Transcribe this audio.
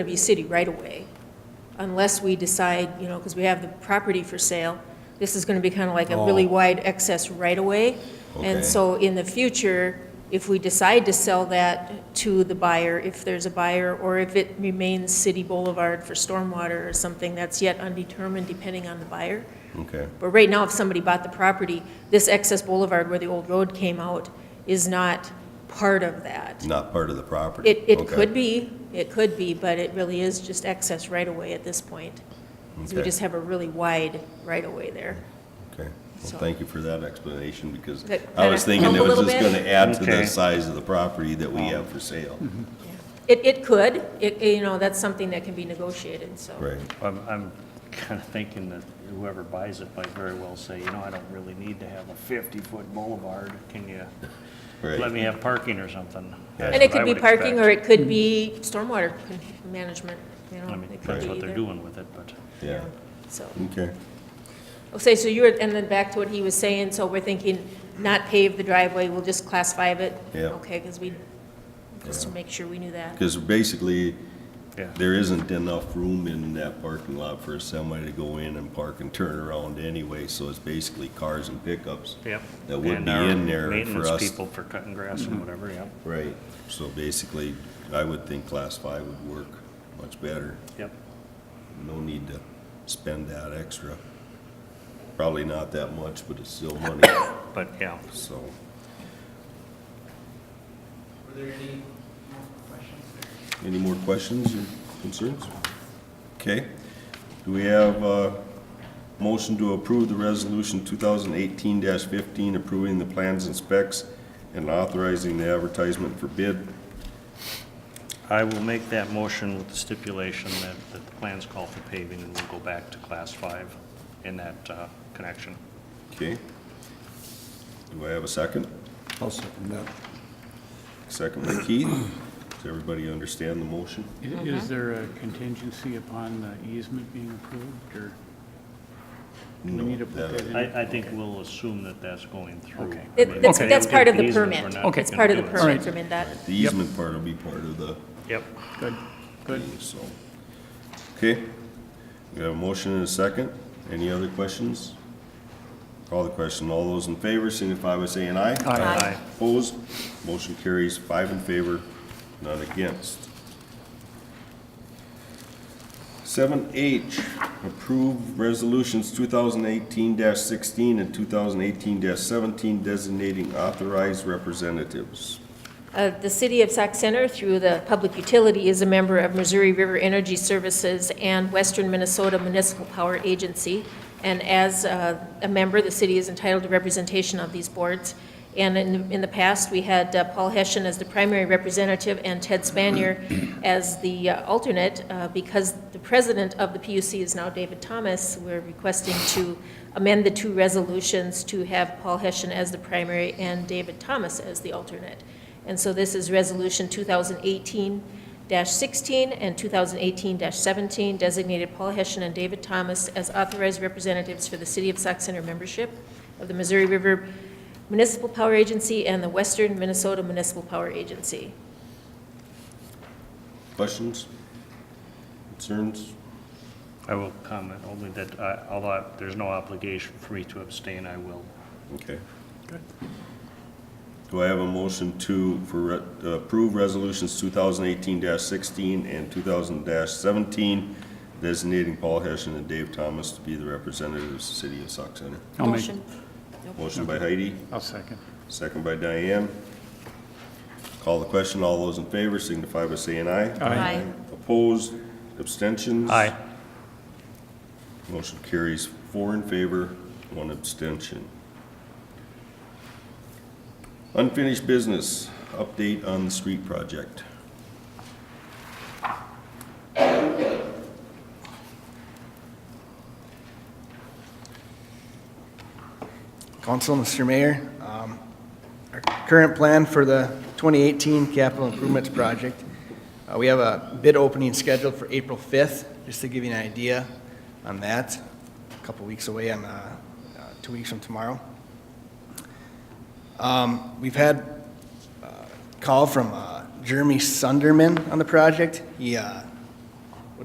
W City right away, unless we decide, you know, because we have the property for sale, this is going to be kind of like a really Oh. wide excess right away. Okay. And so in the future, if we decide to sell that to the buyer, if there's a buyer, or if it remains City Boulevard for stormwater or something, that's yet undetermined depending on the buyer. Okay, But right now, if somebody bought the property, this excess boulevard where the old road came out is not part of that. not part of the property? It, it Okay. could be, it could be, but it really is just excess right-of-way at this point. 'Cause we Okay. just have a really wide right-of-way there. Okay, So- well, thank you for that explanation, because That I kinda was thinking it help a was little just bit? gonna add to the Okay. Mm-hmm. size of the property that we have for sale. It, it could, it, you know, that's something that can be negotiated, so. Right, I'm, I'm kind of thinking that whoever buys it might very well say, you know, I don't really need to have a 50-foot boulevard. Can you let right. me have parking or something? That's And it what I could be would parking, or expect. it could be stormwater con- management, you know. I mean, it could that's be what they're either, doing with it, but Yeah, So. okay, Okay, so you were, and then back to what he was saying, so we're thinking not pave the driveway, we'll just class five it? Yeah. Okay, because we, just to make sure we knew that. because basically, yeah. there isn't enough room in that parking lot for a semi to go in and park and turn around anyway, so it's basically cars and pickups. Yep. That would And be our in there for us- Maintenance people for cutting grass and whatever, yep, Right, so basically, I would think class five would work much better. yep. No need to spend that extra. Probably not that much, but it's still money, But, yeah, so. Were there any more questions? Any more questions or concerns? Okay. Do we have a motion to approve the resolution 2018-15, approving the plans and specs and authorizing the advertisement for bid? I will make that motion with the stipulation that, that the plans call for paving and we'll go back to class five in that uh, connection. Okay. Do I have a second? I'll second that. Second by Keith. Does everybody understand the motion? I- Is there a contingency upon the easement being approved, or do we No, need to put that- that in? I, I think we'll assume that that's going through. Okay. I It- mean, That's, Okay. that's part of the if it isn't, we're permit. not It's gonna part of do the it. permit from that. The easement part will be part of the Yep. Good, good. thing, so. Okay. We have a motion and a second. Any other questions? Call the question. All those in favor signify by saying aye. Aye. Opposed? Motion carries five in favor, none against. Seven H, approve resolutions two thousand eighteen sixteen and two thousand eighteen seventeen designating authorized representatives. Uh, The city of Sac Center, through the public utility, is a member of Missouri River Energy Services and Western Minnesota Municipal Power Agency. And as uh, a member, the city is entitled to representation of these boards. And in, in the past, we had uh, Paul Heschen as the primary representative and Ted Spanier as the uh, alternate. Uh, Because the president of the PUC is now David Thomas, we're requesting to amend the two resolutions to have Paul Heschen as the primary and David Thomas as the alternate. And so this is Resolution 2018-16 and 2018-17, designated Paul Heschen and David Thomas as authorized representatives for the City of Sac Center membership of the Missouri River Municipal Power Agency and the Western Minnesota Municipal Power Agency. Questions? Concerns? I will comment only that, I- although I- there's no obligation for me to abstain, I will. Okay. Do I have a motion to, for, re- uh, approve resolutions two thousand eighteen sixteen and two thousand seventeen, designating Paul Heschen and Dave Thomas to be the representatives of the city of Sauk Center? I'll make- Motion. Motion by Heidi, I'll second. second by Diane. Call the question, all those in favor signify by saying aye. Aye. Opposed, abstentions? Aye. Motion carries four in favor, one abstention. Unfinished business, update on the street project. Council, Mr. Mayor, um, our current plan for the 2018 capital improvements project, uh, we have a bid opening scheduled for April 5th, just to give you an idea on that, a couple weeks away, on, uh, uh, two weeks from tomorrow. Um, We've had call from uh, Jeremy Sunderman on the project. He uh,